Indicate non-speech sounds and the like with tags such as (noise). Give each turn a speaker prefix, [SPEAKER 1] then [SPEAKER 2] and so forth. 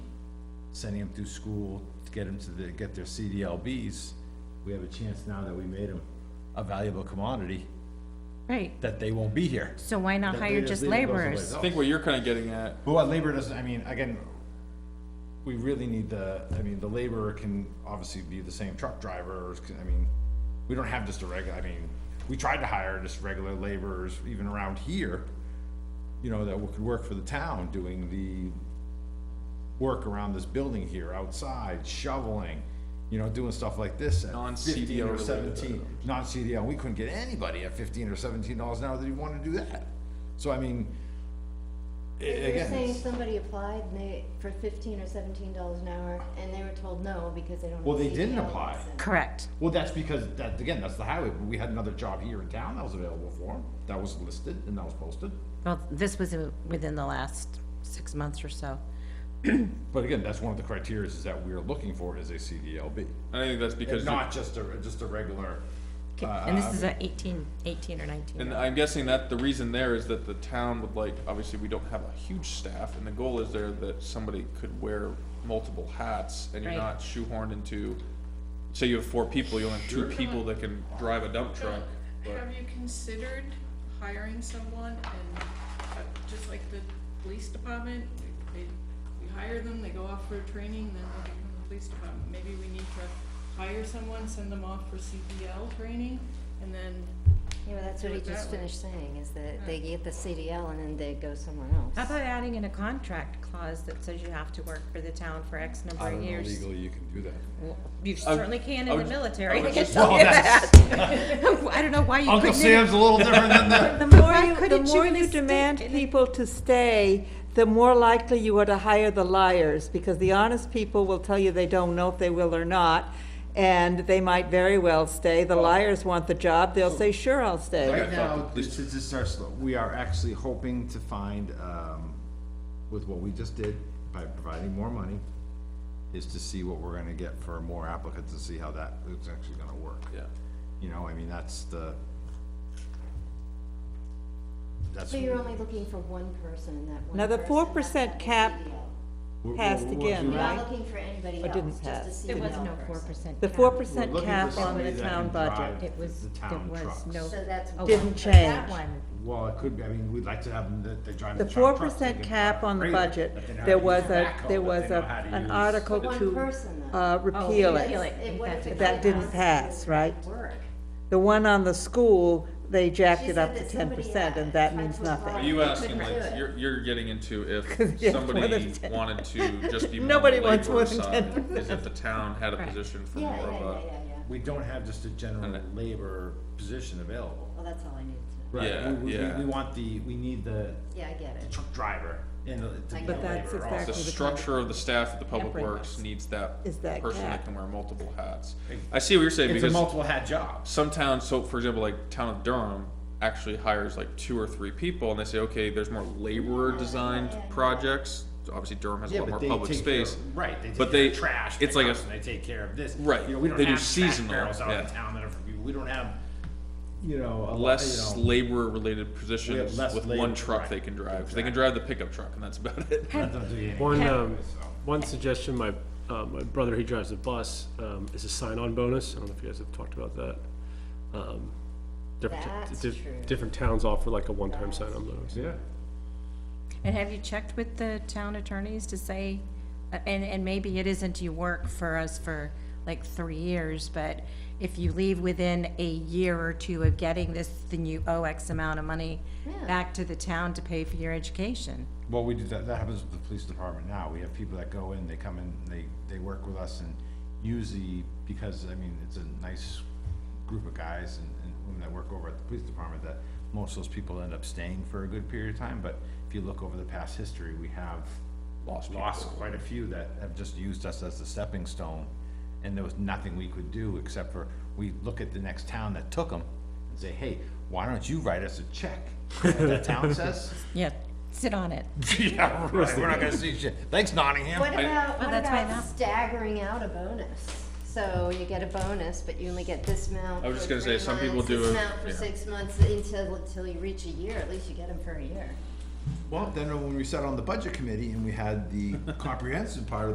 [SPEAKER 1] sending them through school to get them to the, get their CDLBs, we have a chance now that we made them a valuable commodity,
[SPEAKER 2] Right,
[SPEAKER 1] that they won't be here.
[SPEAKER 2] so why not
[SPEAKER 1] That
[SPEAKER 2] hire
[SPEAKER 1] they
[SPEAKER 2] just
[SPEAKER 1] leave it goes away.
[SPEAKER 2] laborers?
[SPEAKER 3] I think what you're kind of getting at,
[SPEAKER 1] But what labor doesn't, I mean, again, we really need the, I mean, the laborer can obviously be the same truck drivers, 'cause, I mean, we don't have just a regular, I mean, we tried to hire just regular laborers even around here, you know, that could work for the town doing the work around this building here, outside, shoveling, you know, doing stuff like this at
[SPEAKER 3] Non-CDL
[SPEAKER 1] fifteen or
[SPEAKER 3] related
[SPEAKER 1] seventeen.
[SPEAKER 3] items.
[SPEAKER 1] Non-CDL, we couldn't get anybody at fifteen or seventeen dollars an hour that even wanted to do that. So I mean, a-
[SPEAKER 4] You're
[SPEAKER 1] again.
[SPEAKER 4] saying
[SPEAKER 1] it's-
[SPEAKER 4] somebody applied and they, for fifteen or seventeen dollars an hour, and they were told no because they don't. have
[SPEAKER 1] Well, they
[SPEAKER 4] a
[SPEAKER 1] didn't
[SPEAKER 4] CDL
[SPEAKER 1] apply.
[SPEAKER 4] license.
[SPEAKER 2] Correct,
[SPEAKER 1] Well, that's because, that, again, that's the highway, but we had another job here in town that was available for him, that was listed and that was posted.
[SPEAKER 2] well, this was uh, within the last six months or so.
[SPEAKER 1] But again, that's one of the criteria is that we're looking for is a CDLB,
[SPEAKER 3] and I think that's
[SPEAKER 1] and
[SPEAKER 3] because, you-
[SPEAKER 1] not just a, just a regular.
[SPEAKER 2] Okay, And this is a eighteen, eighteen or nineteen.
[SPEAKER 3] Uh, and I'm guessing that the reason there is that the town would like, obviously, we don't have a huge staff, and the goal is there that somebody could wear multiple hats, and you're
[SPEAKER 2] Right.
[SPEAKER 3] not shoehorned into, say you have four people, you only have two people that can drive a dump truck, but.
[SPEAKER 5] Have you considered hiring someone and, uh, just like the police department, we- they, we hire them, they go off for training, then they become the police department, maybe we need to hire someone, send them off for CPL training, and then,
[SPEAKER 4] Yeah, but that's what
[SPEAKER 5] Do
[SPEAKER 4] he
[SPEAKER 5] it that
[SPEAKER 4] just
[SPEAKER 5] way.
[SPEAKER 4] finished saying, is that they get the CDL and then they go somewhere else.
[SPEAKER 2] How about adding in a contract clause that says you have to work for the town for X number of years?
[SPEAKER 1] you can do that.
[SPEAKER 2] Well, You
[SPEAKER 3] would-
[SPEAKER 2] certainly can
[SPEAKER 3] I
[SPEAKER 2] in the
[SPEAKER 3] would-
[SPEAKER 2] military. (laughs)
[SPEAKER 3] I
[SPEAKER 2] Don't
[SPEAKER 3] would just-
[SPEAKER 2] do
[SPEAKER 1] Well,
[SPEAKER 2] that. I don't know why you couldn't.
[SPEAKER 1] Uncle Sam's a (laughs) little different than the,
[SPEAKER 2] The
[SPEAKER 6] more
[SPEAKER 2] more,
[SPEAKER 6] you, the more you demand people to stay, the more likely you are to hire the liars, because the honest people will tell you they don't know if they will or not, and they might very well stay. The liars want the job, they'll say, sure, I'll stay.
[SPEAKER 1] right now, this is just our slow, we are actually hoping to find, um, with what we just did, by providing more money, is to see what we're gonna get for more applicants and see how that is actually gonna work.
[SPEAKER 3] Yeah,
[SPEAKER 1] You know, I mean, that's the. That's.
[SPEAKER 4] So you're only looking for one person in that one.
[SPEAKER 6] Now, the
[SPEAKER 4] person
[SPEAKER 6] 4%
[SPEAKER 4] has to have
[SPEAKER 6] cap-
[SPEAKER 4] a CDL.
[SPEAKER 1] we're- we're-
[SPEAKER 6] passed
[SPEAKER 1] we're-
[SPEAKER 6] again,
[SPEAKER 4] You're
[SPEAKER 1] we're-
[SPEAKER 4] not
[SPEAKER 6] Right.
[SPEAKER 4] looking for anybody
[SPEAKER 6] Or didn't
[SPEAKER 4] else,
[SPEAKER 6] pass.
[SPEAKER 4] just a
[SPEAKER 2] There
[SPEAKER 3] (laughs)
[SPEAKER 4] CDL
[SPEAKER 2] was no
[SPEAKER 4] person.
[SPEAKER 2] four percent.
[SPEAKER 6] The four
[SPEAKER 1] we're
[SPEAKER 6] percent
[SPEAKER 1] looking for
[SPEAKER 6] cap on
[SPEAKER 1] somebody
[SPEAKER 6] the
[SPEAKER 1] that can
[SPEAKER 6] town
[SPEAKER 1] drive
[SPEAKER 6] budget.
[SPEAKER 2] It was,
[SPEAKER 1] the
[SPEAKER 2] there
[SPEAKER 1] town
[SPEAKER 2] was
[SPEAKER 1] trucks.
[SPEAKER 2] no.
[SPEAKER 4] So that's
[SPEAKER 2] oh,
[SPEAKER 6] Didn't
[SPEAKER 2] but That
[SPEAKER 6] change.
[SPEAKER 2] one,
[SPEAKER 1] Well, it could be, I mean, we'd like to have them, that they drive the
[SPEAKER 6] The
[SPEAKER 1] town
[SPEAKER 6] four
[SPEAKER 1] trucks.
[SPEAKER 6] percent
[SPEAKER 1] they can
[SPEAKER 6] cap
[SPEAKER 1] drive
[SPEAKER 6] on the
[SPEAKER 1] trailer,
[SPEAKER 6] budget,
[SPEAKER 1] but they know how
[SPEAKER 6] there
[SPEAKER 1] to
[SPEAKER 6] was
[SPEAKER 1] use
[SPEAKER 6] a,
[SPEAKER 1] backhoe,
[SPEAKER 6] there
[SPEAKER 1] but
[SPEAKER 6] was
[SPEAKER 1] they know how
[SPEAKER 6] a,
[SPEAKER 1] to
[SPEAKER 6] an
[SPEAKER 1] use-
[SPEAKER 6] article
[SPEAKER 4] One
[SPEAKER 6] to,
[SPEAKER 4] person, though.
[SPEAKER 6] uh, repeal
[SPEAKER 2] repeal
[SPEAKER 6] it.
[SPEAKER 2] it.
[SPEAKER 4] If- if- what if it
[SPEAKER 6] That
[SPEAKER 4] came
[SPEAKER 6] didn't
[SPEAKER 4] out to
[SPEAKER 6] pass, right?
[SPEAKER 4] Work.
[SPEAKER 6] The one on the school, they jacked
[SPEAKER 4] She
[SPEAKER 6] it up
[SPEAKER 4] said
[SPEAKER 6] to
[SPEAKER 4] that
[SPEAKER 6] ten
[SPEAKER 4] somebody,
[SPEAKER 6] percent,
[SPEAKER 4] uh,
[SPEAKER 6] and that
[SPEAKER 4] tried
[SPEAKER 6] means
[SPEAKER 4] to
[SPEAKER 6] nothing.
[SPEAKER 3] are
[SPEAKER 4] apply.
[SPEAKER 3] you
[SPEAKER 4] They
[SPEAKER 3] asking
[SPEAKER 4] couldn't
[SPEAKER 3] like,
[SPEAKER 4] do it.
[SPEAKER 3] you're, you're getting into
[SPEAKER 6] Yeah,
[SPEAKER 3] if
[SPEAKER 6] more
[SPEAKER 3] somebody
[SPEAKER 6] than 10.
[SPEAKER 3] wanted to just be more on the
[SPEAKER 6] Nobody wants
[SPEAKER 3] labor
[SPEAKER 6] more than
[SPEAKER 3] side, is if the town had a position for
[SPEAKER 4] Yeah,
[SPEAKER 3] more
[SPEAKER 4] yeah,
[SPEAKER 3] of
[SPEAKER 4] yeah,
[SPEAKER 3] a.
[SPEAKER 4] yeah, yeah.
[SPEAKER 1] We don't have just a general labor position available.
[SPEAKER 4] Well, that's all I needed to know.
[SPEAKER 1] Right,
[SPEAKER 3] Yeah,
[SPEAKER 1] we- we, we-
[SPEAKER 3] yeah.
[SPEAKER 1] we want the, we need the
[SPEAKER 4] Yeah, I get it.
[SPEAKER 1] truck driver and the- to be the
[SPEAKER 4] But
[SPEAKER 6] that's
[SPEAKER 1] laborer
[SPEAKER 3] The
[SPEAKER 1] also.
[SPEAKER 6] exactly- Actually, the
[SPEAKER 3] structure of the staff at the Public
[SPEAKER 2] Temporary
[SPEAKER 3] Works
[SPEAKER 2] works.
[SPEAKER 3] needs that
[SPEAKER 6] Is that
[SPEAKER 3] person that
[SPEAKER 6] cap.
[SPEAKER 3] can wear multiple hats. I see what you're saying,
[SPEAKER 1] It's a
[SPEAKER 3] because
[SPEAKER 1] multiple hat job.
[SPEAKER 3] some towns, so for example, like town of Durham actually hires like two or three people, and they say, okay, there's more laborer-designed projects. Obviously Durham has a lot more public space.
[SPEAKER 1] Right, they
[SPEAKER 3] but
[SPEAKER 1] take
[SPEAKER 3] they-
[SPEAKER 1] care of trash
[SPEAKER 3] it's like a-
[SPEAKER 1] pickups and they take care of this.
[SPEAKER 3] Right,
[SPEAKER 1] You know, we don't
[SPEAKER 3] they do
[SPEAKER 1] have trash
[SPEAKER 3] seasonal,
[SPEAKER 1] barrels out in
[SPEAKER 3] yeah.
[SPEAKER 1] town that are for people, we don't have, you know, a lot,
[SPEAKER 3] Less
[SPEAKER 1] you know.
[SPEAKER 3] laborer-related positions
[SPEAKER 1] less
[SPEAKER 3] with
[SPEAKER 1] labor-
[SPEAKER 3] one truck
[SPEAKER 1] right,
[SPEAKER 3] they can drive, 'cause they can drive the pickup truck, and that's about it.
[SPEAKER 1] that don't do you any
[SPEAKER 7] One,
[SPEAKER 1] good
[SPEAKER 7] um,
[SPEAKER 1] so.
[SPEAKER 7] one suggestion, my, uh, my brother, he drives a bus, um, is a sign-on bonus, I don't know if you guys have talked about that. Um, different t-
[SPEAKER 4] That's
[SPEAKER 7] diff-
[SPEAKER 4] true.
[SPEAKER 7] Different towns offer like a one-time sign-on bonus.
[SPEAKER 1] Yeah.
[SPEAKER 2] and have you checked with the town attorneys to say, uh, and, and maybe it isn't you work for us for like three years, but if you leave within a year or two of getting this, then you owe X amount of money
[SPEAKER 4] Yeah.
[SPEAKER 2] back to the town to pay for your education.
[SPEAKER 1] Well, we do that, that happens with the police department now, we have people that go in, they come in, they, they work with us and usually, because, I mean, it's a nice group of guys and, and women that work over at the police department, that most of those people end up staying for a good period of time, but if you look over the past history, we have
[SPEAKER 3] Lost
[SPEAKER 1] lost quite a few that have just used us as a stepping stone, and there was nothing we could do except for, we look at the next town that took them and say, hey, why don't you write us a check? You know What that town says?
[SPEAKER 2] Yeah, sit on it.
[SPEAKER 1] (laughs) Yeah, right, we're not gonna see shit. Thanks Nottingham.
[SPEAKER 4] What about,
[SPEAKER 2] Well,
[SPEAKER 4] what
[SPEAKER 2] that's why now-
[SPEAKER 4] about staggering out a bonus? So you get a bonus, but you only get this amount.
[SPEAKER 3] I was just
[SPEAKER 4] for
[SPEAKER 3] gonna say,
[SPEAKER 4] three
[SPEAKER 3] some people
[SPEAKER 4] months,
[SPEAKER 3] do
[SPEAKER 4] This
[SPEAKER 3] a-
[SPEAKER 4] amount for
[SPEAKER 3] yeah.
[SPEAKER 4] six months until, until you reach a year, at least you get them for a year.
[SPEAKER 1] Well, then when we sat on the budget committee and we had the (laughs) comprehensive part of